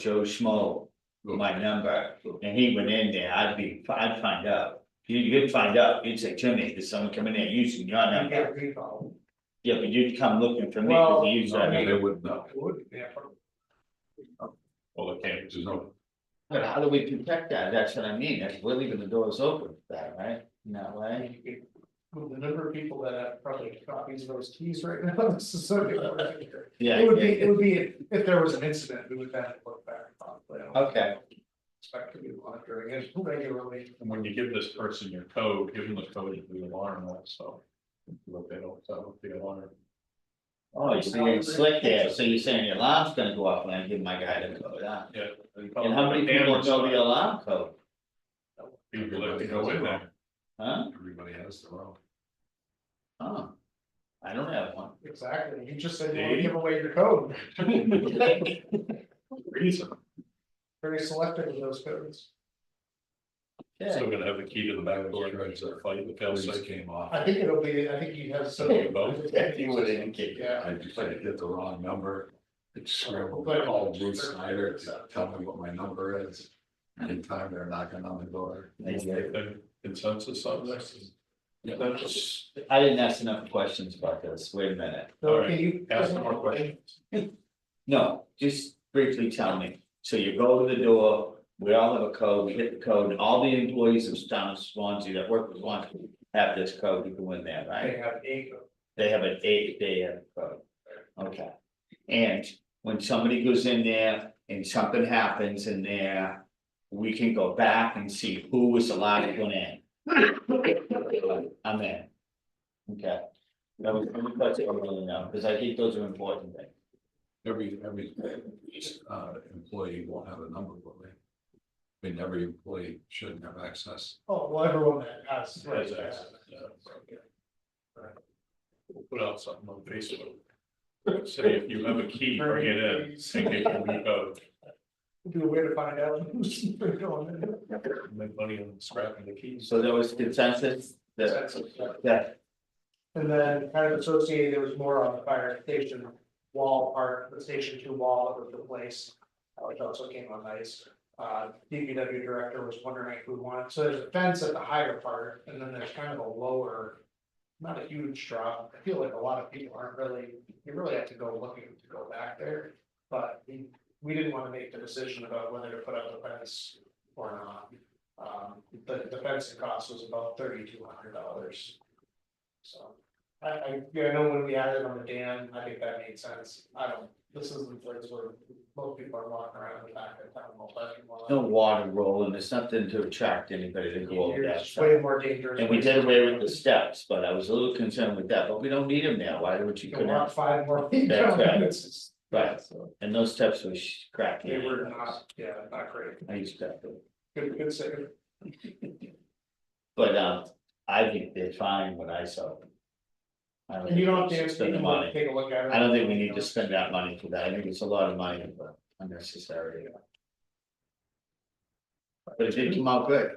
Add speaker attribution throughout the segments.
Speaker 1: Joe Schmo my number, and he went in there, I'd be, I'd find out. You, you'd find out, you'd say, Jimmy, there's someone coming in using your
Speaker 2: You
Speaker 1: number,
Speaker 2: got people.
Speaker 1: yeah, but you'd come looking for me, cause you use that.
Speaker 2: Well,
Speaker 1: number.
Speaker 3: They wouldn't know,
Speaker 2: It would be a problem.
Speaker 3: well, they can't, 'cause there's no,
Speaker 1: But how do we protect that? That's what I mean, that's, we're leaving the doors open for that, right? No way.
Speaker 2: You could- With the number of people that have probably copies of those keys right now, this is so. It
Speaker 1: Yeah.
Speaker 2: would
Speaker 1: yeah,
Speaker 2: be,
Speaker 1: yeah.
Speaker 2: it would be, if if there was an incident, we would have to look back and probably.
Speaker 1: Okay.
Speaker 2: Expect to be monitoring it regularly.
Speaker 3: and when you give this person your code, give them the code of the alarm also. But they don't, so the alarm,
Speaker 1: Oh, you're being slick there, so you're saying your alarm's gonna go off when I give my guy the code, huh?
Speaker 3: yeah. Oh,
Speaker 1: And how many people know the alarm code,
Speaker 3: People that go in there,
Speaker 1: huh?
Speaker 3: everybody has their own.
Speaker 1: Oh. I don't have one.
Speaker 2: Exactly, you just said, you wanna give away your code,
Speaker 3: Reason,
Speaker 2: very selective of those codes.
Speaker 1: Yeah,
Speaker 3: still gonna have the key to the back door, right, so if I, the fail safe came off.
Speaker 2: I think it'll be, I think you have some.
Speaker 3: Okay, both.
Speaker 1: You would indicate.
Speaker 2: Yeah.
Speaker 3: I just had to get the wrong number. It's scribbled,
Speaker 2: But-
Speaker 3: called Bruce Snyder to tell me what my number is. Anytime they're knocking on the door.
Speaker 1: Thank you.
Speaker 3: Consensus on this? Yeah, that's,
Speaker 1: I didn't ask enough questions about this, wait a minute.
Speaker 2: So can you?
Speaker 3: ask more questions.
Speaker 1: No, just briefly tell me, so you go to the door, we all have a code, we hit the code, and all the employees of town of Swansea that work with Swansea. Have this code, you go in there,
Speaker 2: They
Speaker 1: right?
Speaker 2: have eight.
Speaker 1: They have an eight, they have a code, okay. And when somebody goes in there and something happens in there. We can go back and see who was allowed to go in. I'm in. Okay. That was, that's what I really know, because I think those are important things.
Speaker 3: Every, every, uh, employee won't have a number, will they? I mean, every employee shouldn't have access.
Speaker 2: Oh, well, everyone that has.
Speaker 3: Has access, yeah. We'll Put out something on Facebook. Say if you have a key, bring it in, and get your new code.
Speaker 2: Do a way to find out who's going in.
Speaker 3: Make money on scrapping the keys.
Speaker 1: So there was consensus that, that,
Speaker 2: And then kind of associated, there was more on the fire station wall part, the station two wall that was replaced, uh, which also came on ice. Uh, DPW director was wondering if we want, so there's a fence at the higher part, and then there's kind of a lower. Not a huge drop, I feel like a lot of people aren't really, you really have to go looking to go back there, but we, we didn't wanna make the decision about whether to put up the fence or not. Um, the, the fencing cost was about thirty-two hundred dollars. So, I, I, yeah, I know when we added on the dam, I think that made sense, I don't, this is the place where most people are walking around the back of town, uh, all that.
Speaker 1: no water rolling, there's nothing to attract anybody to go over
Speaker 2: You're
Speaker 1: that
Speaker 2: just way
Speaker 1: side.
Speaker 2: more dangerous.
Speaker 1: And we did away with the steps, but I was a little concerned with that, but we don't need them now, why would you
Speaker 2: You can
Speaker 1: put
Speaker 2: walk
Speaker 1: out?
Speaker 2: five more feet
Speaker 1: That's
Speaker 2: down,
Speaker 1: right.
Speaker 2: it's just.
Speaker 1: Right.
Speaker 2: so
Speaker 1: And those steps were sh- cracked.
Speaker 2: They were not, yeah, not great,
Speaker 1: I expect them,
Speaker 2: good, good save.
Speaker 1: but, um, I think they're fine when I saw them. I
Speaker 2: And you don't have
Speaker 1: think we should
Speaker 2: to, answer, you
Speaker 1: Spend the
Speaker 2: can
Speaker 1: money,
Speaker 2: take a look at it.
Speaker 1: I don't think we need to spend that money for that, I think it's a lot of money, but unnecessary. But it did come out good,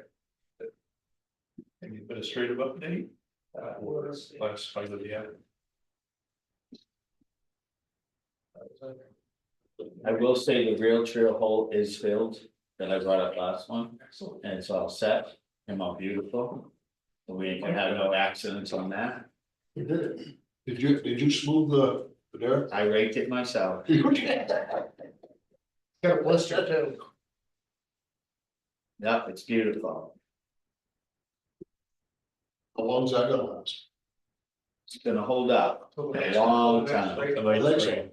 Speaker 3: Administrative update,
Speaker 2: Uh, was-
Speaker 3: last fight of the year.
Speaker 1: I will say the real trail hole is filled, that I brought up last one.
Speaker 2: Excellent.
Speaker 1: and it's all set, and all beautiful. We ain't gonna have no accidents on that,
Speaker 2: You did it.
Speaker 4: Did you, did you smooth the, the dirt?
Speaker 1: I raked it myself.
Speaker 2: Got a blister too.
Speaker 1: Yep, it's beautiful,
Speaker 4: How long's that gonna last?
Speaker 1: it's gonna hold up,
Speaker 2: So
Speaker 1: A
Speaker 2: next-
Speaker 1: long
Speaker 2: so next
Speaker 1: time.
Speaker 2: break-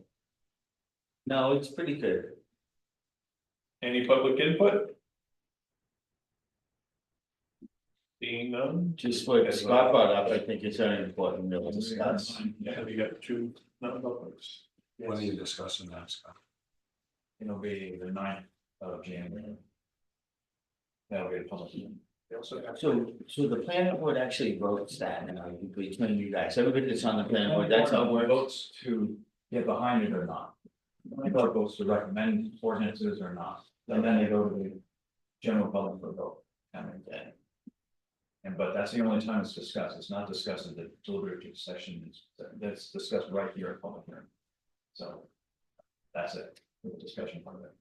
Speaker 1: no, it's pretty good.
Speaker 3: Any public input? Being none?
Speaker 1: Just what Scott brought up, I think it's very important to discuss.
Speaker 3: Have you got two non-publics?
Speaker 4: When are you discussing that, Scott?
Speaker 5: It'll be the ninth of January. That'll be the public hearing.
Speaker 2: They also have-
Speaker 1: So, so the planning board actually votes that, and I, between you guys, everybody that's on the planning board, that's how it works.
Speaker 5: Votes to get behind it or not. My vote votes to recommend ordinances or not, and then they go to the general public for vote. I mean, that- And but that's the only time it's discussed, it's not discussed at the deliberative session, It's- that's discussed right here at public hearing. So. That's it, the discussion part of it.